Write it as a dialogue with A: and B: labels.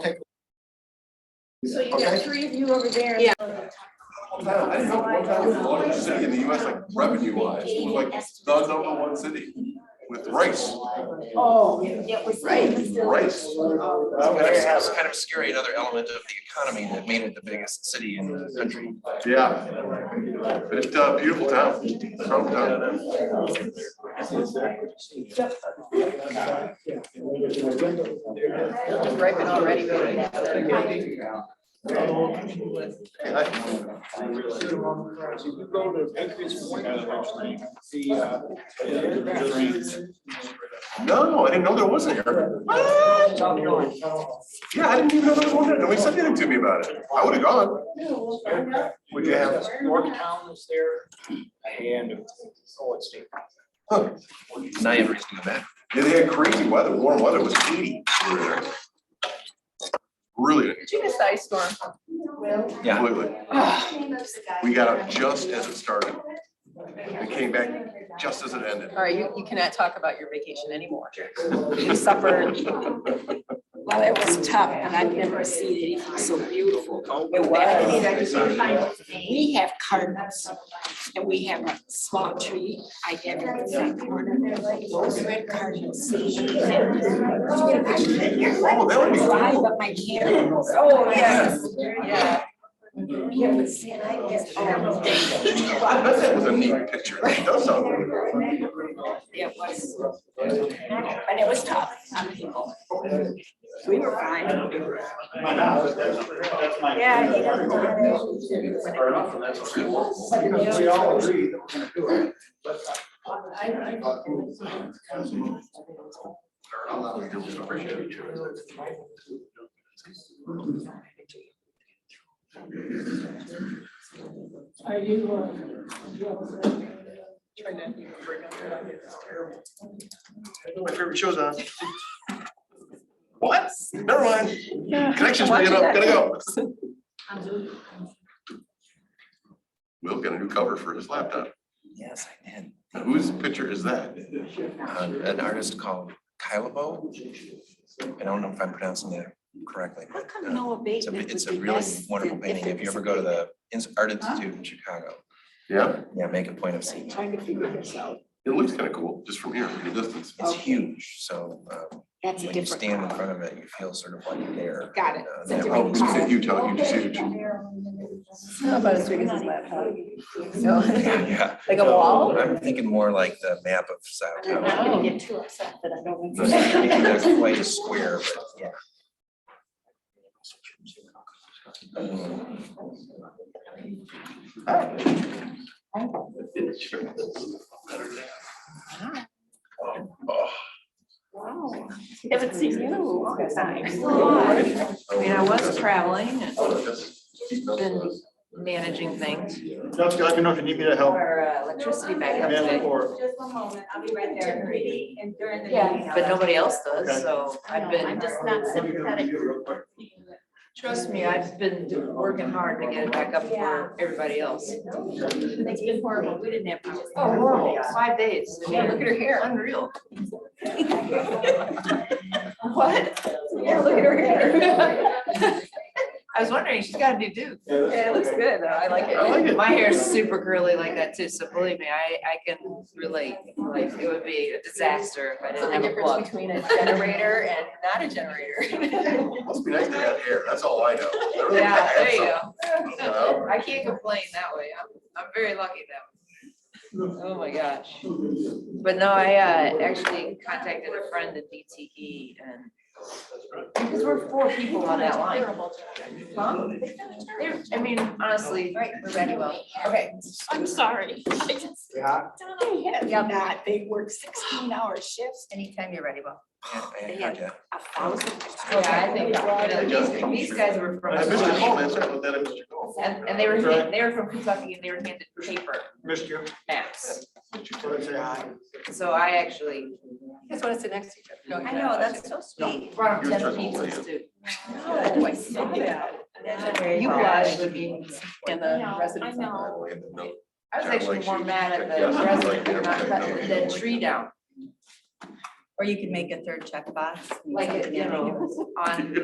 A: take.
B: So you got
A: Okay.
B: three of you over there.
C: Yeah.
A: I didn't know Old Town was the largest city in the US, like revenue wise, it was like the number one city with race,
B: Oh,
C: It was.
A: race.
D: But It's it's kind of scary, another element of the economy that made it the biggest city in the country.
A: Yeah. But it's a beautiful town, strong town.
E: Ripen already,
F: You go to Patriots Point, the, uh,
A: No, I didn't know there was an air. What? Yeah, I didn't even know there was one, there. nobody said anything to me about it, I would have gone. Would you have?
F: Yorktown is there and, oh, it's deep.
A: Huh.
D: Now you have reason to go back.
A: Yeah, they had crazy weather, warm weather, it was eighty over there. Really,
E: Did you miss the ice storm?
D: Yeah.
A: completely, we got out just as it started, it came back just as it ended.
E: All right, you, you cannot talk about your vacation anymore. You suffered.
A: Oh,
C: Well, it was tough and I've never seen anything so beautiful.
E: It was.
C: We have cardinals and we have a small tree. I have it in that corner. Those red cardinals.
A: Oh, that would be
C: Fly,
A: cool.
C: but my candles.
E: Oh, yes. Yeah.
C: We have a San I guess. um, all day.
A: I bet that was a neat picture, that does sound good.
C: It was. But it was tough on people. We were fine.
B: Yeah, he doesn't
F: We all agree that we're gonna do it.
B: Are you?
A: My favorite show's on. What? Never mind, connection's
E: Watching
A: made up,
E: that.
A: gotta go. Will get a new cover for his laptop,
D: Yes, I did.
A: Now, whose picture is that?
D: Uh, An artist called Kylabo. I don't know if I'm pronouncing that correctly.
C: How
D: but,
C: come
D: uh,
C: no
D: It's a,
C: abatement
D: it's
C: would
D: a
C: be
D: really
C: less
D: wonderful
C: than if
D: painting.
C: it
D: If you
C: was
D: ever
C: a
D: go to
C: big-
D: the Ins- Art Institute in Chicago,
A: Yeah,
D: yeah, make a point of seeing. it.
C: Trying to figure this out.
A: it looks kinda cool, just from here, from the distance.
D: It's
C: Okay.
D: huge, so um,
C: That's a
D: when you
C: different.
D: stand in
C: color.
D: front of it, you feel sort of like you're there.
C: Got it.
D: And, uh,
C: It's a
D: that
C: different
A: Oh,
D: one
A: we
D: was
C: color.
A: said Utah, huge, huge.
E: Not About as big as his laptop. So,
D: Yeah, yeah.
E: Like a wall?
D: I'm thinking more like the map of South.
C: I'm not gonna get too upset that I don't.
D: Those- maybe Not quite a square, but yeah. Um,
C: Wow.
E: Haven't seen you. I mean, I was
A: Oh,
E: traveling and
A: that's- that's-
E: Been managing things.
F: Jessica, let me know if you need me to help.
E: Our uh, electricity backup
F: Man
E: today.
F: or,
B: Just one moment, I'll be right there. Meeting and during the
C: Yeah.
B: meeting.
E: But nobody else does, so I've
B: I'm
E: been,
B: just not sympathetic.
E: trust me, I've been working hard to get it back up for everybody else.
B: It's been horrible, we didn't have.
E: Oh, horrible, five days. Yeah, look at her hair, unreal. What? Yeah, look at her hair. I was wondering, she's got a new do. Yeah, it looks good, though, I like
A: I like it.
E: it. My hair's super curly like that too, so believe me, I, I can relate. Like, it would be a disaster if I didn't have a plug.
B: between
E: Generator and not a generator.
A: Must be nice to have hair, that's all I know.
E: Yeah, there you
A: Well.
E: go. I can't complain that way. I'm, I'm very lucky that way. Oh my gosh. But no, I, uh, actually contacted a friend at DTE and because we're four people on that line. Huh? They're- I mean, honestly, we're ready well. Okay.
C: I'm sorry.
F: yeah,
C: Yeah, not. they work sixteen hour shifts,
E: Anytime you're ready well.
D: yeah, I heard ya.
C: a thousand.
E: Yeah, I think, uh, these, these guys were from.
A: I missed your call, that's right, but then I missed your call.
E: And, and they were, hand- they were from Kentucky and they were handed paper
F: missed you.
E: maps.
F: Wanna say hi?
E: So I actually.
C: That's what I said next to each other.
E: I know, that's so sweet. Brought
A: He was trying to hold
E: pizzas too.
C: No, Oh, I saw that.
E: You blushed. I
C: And
B: No,
C: the
B: I
C: residents.
B: know.
A: Oh, and then, no.
E: was actually more mad at the resident for not cutting the tree down,
G: Or you could make a third checkbox.
E: like, you know, on